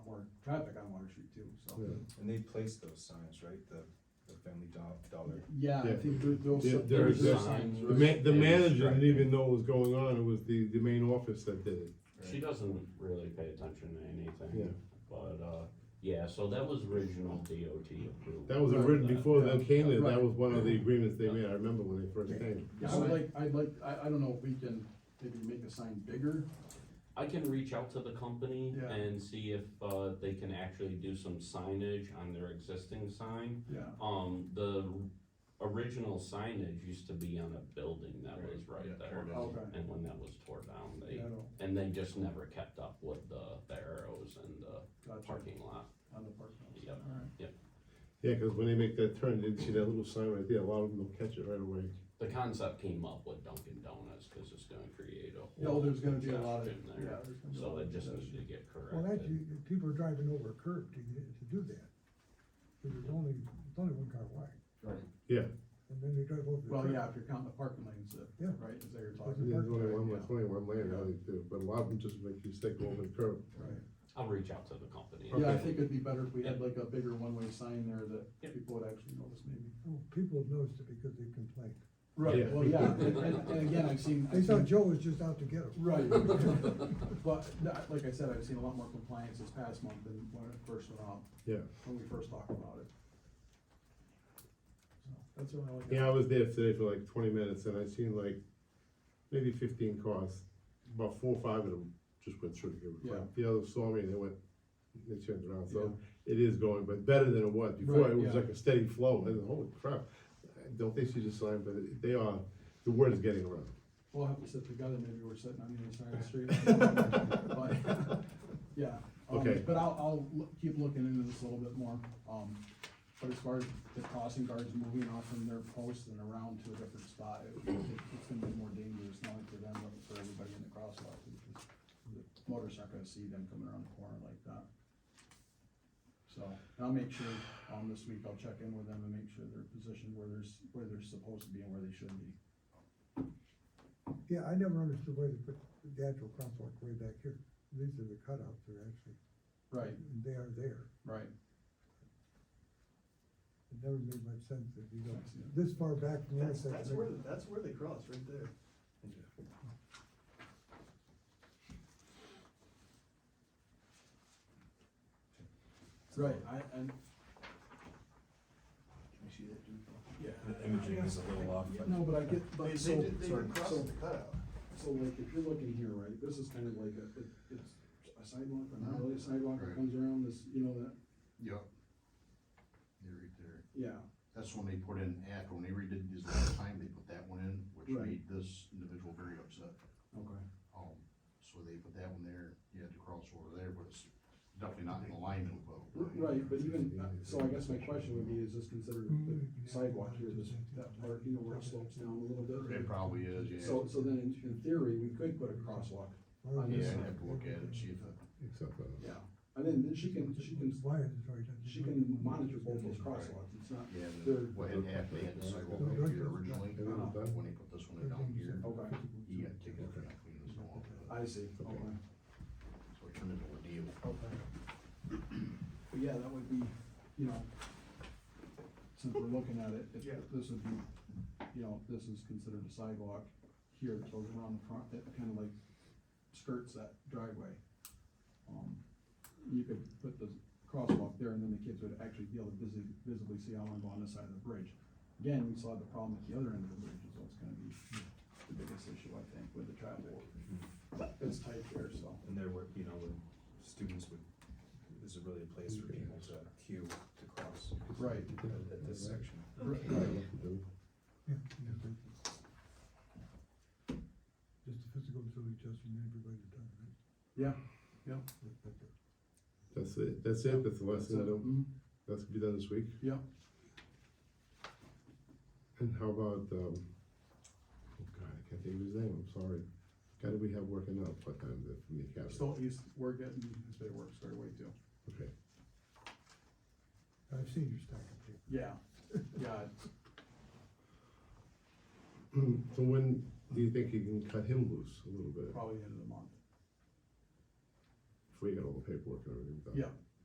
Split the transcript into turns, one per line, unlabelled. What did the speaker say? traffic on Water Street too, so.
And they placed those signs, right, the, the family do- dollar.
Yeah, I
Yeah.
think there- there'll.
There-
some-
there's
there'll
a-
signs.
The ma- the manager
Right.
didn't even know what was going on, it was the, the main office that did it.
She doesn't really pay attention to
Yeah.
anything, but, uh, yeah, so that was original DOT approval.
That was
Right.
written before
Yeah.
they came there,
Right.
that was one of the agreements they made, I remember when they first came.
Yeah, I would like, I'd like, I, I don't know if we can maybe make the sign bigger,
I can reach out to the company
Yeah.
and see if, uh, they can actually do some signage on their existing sign.
yeah.
Um, the original signage used to be on a building that was right there.
Okay.
And when that was tore down, they,
Yeah, I don't-
and they just never kept up with the, the arrows and the
gotcha.
parking lot.
On the parking lot.
Yep.
All right.
Yeah, cause when they make that turn, they see that little sign right there, a lot of them will catch it right away.
The concept came up with Dunkin' Donuts, cause it's gonna create a.
No,
whole
there's gonna be a lot of, yeah.
congestion there.
there's gonna be a
So
lot
it
of
just needs
congestion.
to get
Well, that,
corrected.
you, people are driving over a curb to, to do that. 'Cause There's only, it's only one car wide.
Right.
Yeah.
And then they drive over the curb.
Well, yeah, if you're counting the parking lanes, uh,
Yeah.
right, is that you're
Yeah,
talking.
There's only
about,
one,
yeah.
there's only one lane, I think, too, but a lot of them just make you stick over the curb.
Right.
I'll reach out to the company. and
Yeah, I
Okay.
think it'd be better if we had like a bigger one-way sign there that
Yep.
people would actually notice maybe.
Oh, People noticed it because they complained.
Right,
Yeah.
well, yeah, and, and, and again, I've seen.
They
I've
thought
seen-
Joe was just out to get them.
Right. But, no, like I said, I've seen a lot more compliance this past month than when it first went out,
Yeah,
when we first talked about it. So, That's the only. one I got.
yeah, I was there today for like twenty minutes and I seen like maybe fifteen cars, about four or five of them just went through to give a
Yeah.
crap. The others saw me and they went, they turned around, so
Yeah.
it is going, but better than it was before,
Right,
it was
yeah.
like a steady flow, and holy crap. I Don't think she's a sign, but it- they are, the word is getting around.
We'll have to sit together, maybe we're sitting on the other side of the street. But, Yeah. um,
Okay.
But I'll, I'll loo- keep looking into this a little bit more, um, but as far as the crossing guards moving off from their posts and around to a different spot, it- it- it's gonna be more dangerous, not only for them, but for everybody in the crosswalk. because the Motorists aren't gonna see them coming around the corner like that. So, and I'll make sure, um, this week I'll check in with them and make sure they're positioned where there's, where they're supposed to be and where they should be.
Yeah, I never understood why they put the actual crosswalk way back here. These are the cutouts, they're actually,
Right,
they are there.
right.
It never made much sense if you go
Yeah.
this far back from the
That's, that's where,
intersection.
that's where they cross, right there.
Right, I, and,
Can you see that dude?
yeah.
The imaging is a little off, but.
No, but I get,
They,
but
they
so,
did, they
sorry,
did cross
so,
the cutout.
so like, if you're looking here, right, this is kind of like a, it- it's a sidewalk, but not really a sidewalk, it
Right.
comes around this, you know, that,
Yep. They're right there.
yeah,
That's when they put in at, when they redid this last time, they put that one in, which
Right.
made this individual very upset.
okay.
Um, so they put that one there, you had to cross over there, but it's definitely not in alignment with. what-
Right, but even, uh, so I guess my question would be, is this considered
Mm-hmm.
the sidewalk here, this, that part, you know, where it slopes down a little bit?
It probably is, yeah.
So, so then in, in theory, we could put a crosswalk,
Why
on
is
this
Yeah,
it-
I'd have to look at it, see if it.
Except uh, for,
yeah, and then, then she can, she can,
Why is it right? there?
she can monitor both those crosswalks, it's not,
Yeah, the-
They're-
what had happened, they had the sidewalk over here originally,
It was done.
when they put this one down here,
okay,
he had to take it and clean this one off.
I see, okay.
So it turned into a deal.
Okay. But yeah, that would be, you know, since we're looking at it, if
Yeah.
this would be, you know, if this is considered a sidewalk here that goes around the front, that kind of like skirts that driveway. Um, you could put the crosswalk there and then the kids would actually be able to visibly, visibly see how long on this side of the bridge. Again, we saw the problem at the other end of the bridge, is what's gonna be the biggest issue, I think, with the traffic. It's tight there, so.
And there were, you know, when students would, is it really a place for people to queue to cross?
Right.
At at this section.
Yeah, yeah, thank you. Just a physical ability test from everybody done, right?
Yeah,
That-
that's
that's it.
it, that's it, that's the last thing, that'll-
Mhm.
that's gonna be done this week.
Yeah.
And how about, um, oh god, I can't think of his name, I'm sorry. Guy that we have working out part-time that from the academy,
Still, he's, we're getting, his day work started way too.
okay.
I've seen your stack of papers.
Yeah, yeah,
So when do you think you can cut him loose a little bit,
probably the end of the month.
before you get all the paperwork and everything done?
Yeah,